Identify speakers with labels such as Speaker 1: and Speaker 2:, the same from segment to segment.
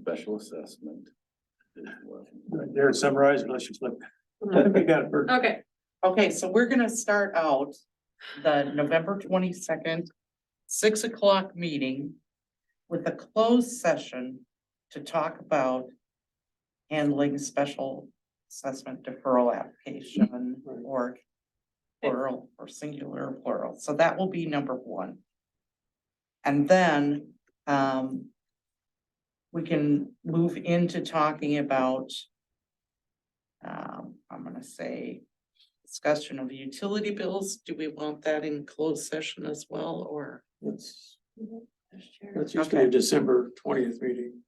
Speaker 1: special assessment.
Speaker 2: Right there, it's summarized, unless you flip. I
Speaker 3: Mm-hmm.
Speaker 2: think we got it, Bert.
Speaker 4: Okay,
Speaker 3: Okay, so we're gonna start out the November twenty-second, six o'clock meeting with a closed session to talk about handling special assessment deferral application or plural or singular or plural. So that will be number one. And then, um, we can move into talking about um, I'm gonna say discussion of utility bills, do we want that in closed session as well, or?
Speaker 2: That's,
Speaker 4: Sure.
Speaker 2: that's usually a December twentieth meeting.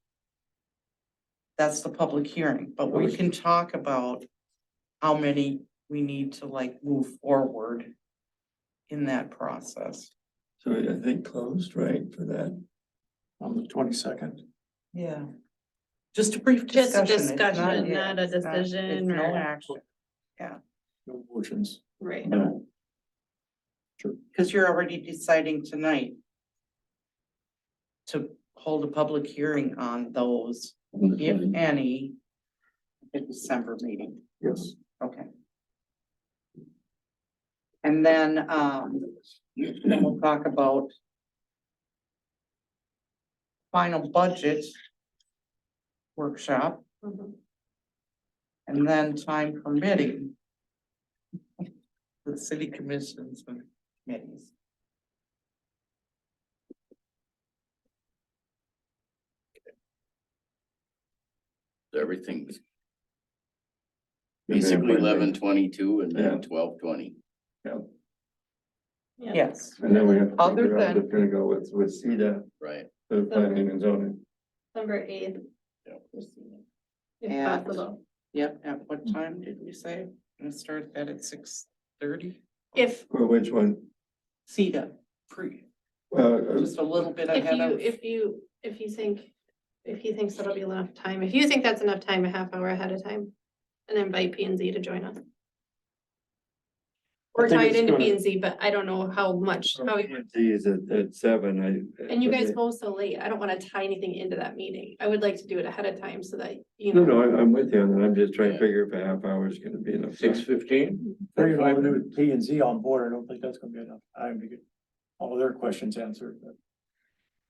Speaker 3: That's the public hearing, but we
Speaker 2: Public-
Speaker 3: can talk about how many we need to like move forward in that process.
Speaker 5: So I think closed, right, for that?
Speaker 2: On the twenty-second.
Speaker 3: Yeah. Just a brief
Speaker 4: Just a
Speaker 3: discussion. it's
Speaker 4: discussion,
Speaker 3: yeah,
Speaker 4: not a
Speaker 3: it's not- it's
Speaker 4: decision
Speaker 3: No
Speaker 4: or-
Speaker 3: action,
Speaker 2: No motions.
Speaker 4: Right.
Speaker 5: No.
Speaker 3: because you're already deciding tonight to hold a public hearing on those if any, at the December meeting,
Speaker 2: Yes.
Speaker 3: okay. And then, um, then we'll talk about final budget workshop,
Speaker 4: Mhm.
Speaker 3: and then time permitting the city commissions and committees.
Speaker 1: Everything's basically eleven twenty-two and
Speaker 5: Yeah.
Speaker 1: then twelve twenty.
Speaker 4: Yeah.
Speaker 3: Yes,
Speaker 5: And then we have. to
Speaker 3: Other
Speaker 5: figure out
Speaker 3: than-
Speaker 5: if We're gonna go with, with CEDA,
Speaker 1: Right.
Speaker 5: the planning and zoning.
Speaker 4: Number eight.
Speaker 1: Yeah.
Speaker 4: If
Speaker 3: And-
Speaker 4: possible,
Speaker 3: yep, at what time did we say? Gonna start that at six thirty?
Speaker 4: if,
Speaker 5: Well, which one?
Speaker 3: CETA, pre,
Speaker 5: Uh,
Speaker 3: just a little bit
Speaker 4: if
Speaker 3: ahead
Speaker 4: you,
Speaker 3: of.
Speaker 4: if you, if you think, if he thinks that'll be enough time, if you think that's enough time, a half hour ahead of time. And invite P and Z to join us. Or
Speaker 2: think
Speaker 4: tie it
Speaker 2: it's
Speaker 4: into
Speaker 2: gonna-
Speaker 4: P and Z, but I don't know how much,
Speaker 3: Oh,
Speaker 4: how,
Speaker 5: P&Z is at, at seven, I.
Speaker 4: and you guys go so late, I don't wanna tie anything into that meeting, I would like to do it ahead of time so that, you
Speaker 5: No,
Speaker 4: know.
Speaker 5: no, I- I'm with you, and I'm just trying to figure if a half hour is gonna be enough. time.
Speaker 1: fifteen?
Speaker 2: Very with P and Z on board, I don't think that's gonna be enough time to get all their questions answered, but.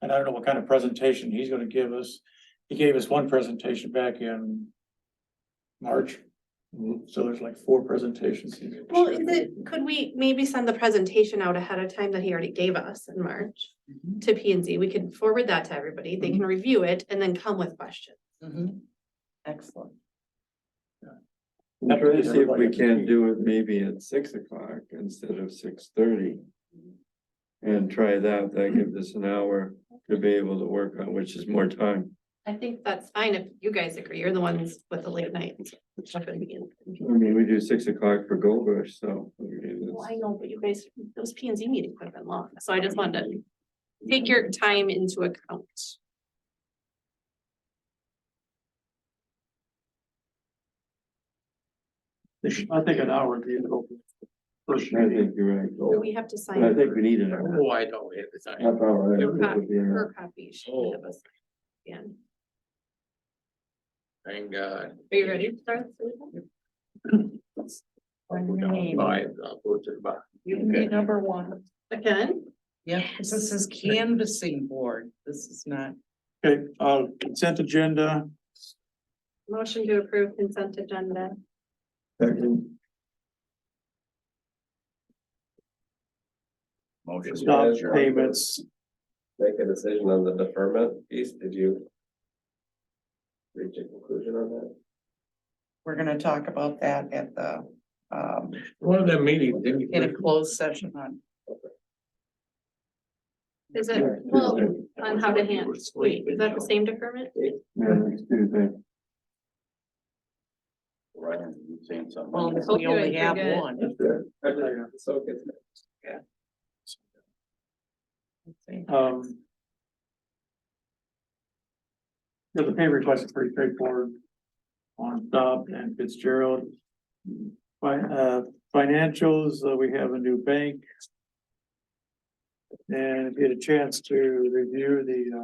Speaker 2: And I don't know what kind of presentation he's gonna give us. He gave us one presentation back in March,
Speaker 5: Mhm.
Speaker 2: so there's like four presentations. he gave us.
Speaker 4: Well, is it, could we maybe send the presentation out ahead of time that he already gave us in March
Speaker 3: Mhm.
Speaker 4: to P and Z? We could forward that to everybody. They can review it and then come with questions.
Speaker 3: Mhm. Excellent.
Speaker 5: I'm trying to see if we can do it maybe at six o'clock instead of six thirty. And try that, that gives us an hour to be able to work on, which is more time.
Speaker 4: I think that's fine if you guys agree. You're the ones with the late night.
Speaker 5: I mean, we do six o'clock for Gold Rush, so. I mean,
Speaker 4: Well, I
Speaker 5: it's-
Speaker 4: know, but you guys, those P and Z meetings would have been long, so I just wanted to take your time into account.
Speaker 2: I think an hour would be enough. First
Speaker 5: I
Speaker 2: meeting.
Speaker 5: think you're right.
Speaker 4: Do
Speaker 5: Gold.
Speaker 4: we have to sign
Speaker 5: But Oh. I think we
Speaker 4: her
Speaker 5: need an hour.
Speaker 1: Oh, I know, it's not.
Speaker 5: Half hour. I think
Speaker 4: You're
Speaker 5: would be enough.
Speaker 4: her copy? She can have us. again.
Speaker 1: Thank God.
Speaker 4: Are you ready to start? Susan?
Speaker 3: You can be number one.
Speaker 4: Again?
Speaker 3: Yeah, 'cause this is canvassing board. This is not.
Speaker 2: Okay, uh, consent agenda,
Speaker 4: Motion to approve consent agenda.
Speaker 5: Second.
Speaker 1: Motion.
Speaker 2: stop payments,
Speaker 6: make a decision on the deferment piece, did you? Reach a conclusion on that?
Speaker 3: We're gonna talk about that at the, um,
Speaker 6: One of them meetings, didn't
Speaker 3: in a closed session on.
Speaker 4: Is it, well, on how to hand, wait, is that the same deferment?
Speaker 5: Yeah, next Tuesday.
Speaker 1: Ryan, you saying something?
Speaker 3: Well,
Speaker 4: hope
Speaker 3: we
Speaker 4: you
Speaker 3: only
Speaker 4: guys
Speaker 3: have
Speaker 4: forget.
Speaker 3: one.
Speaker 6: So good.
Speaker 2: um. yeah, the pay request is pretty straightforward. On Dobb and Fitzgerald. By, uh, financials, uh, we have a new bank. And if you had a chance to review the, uh,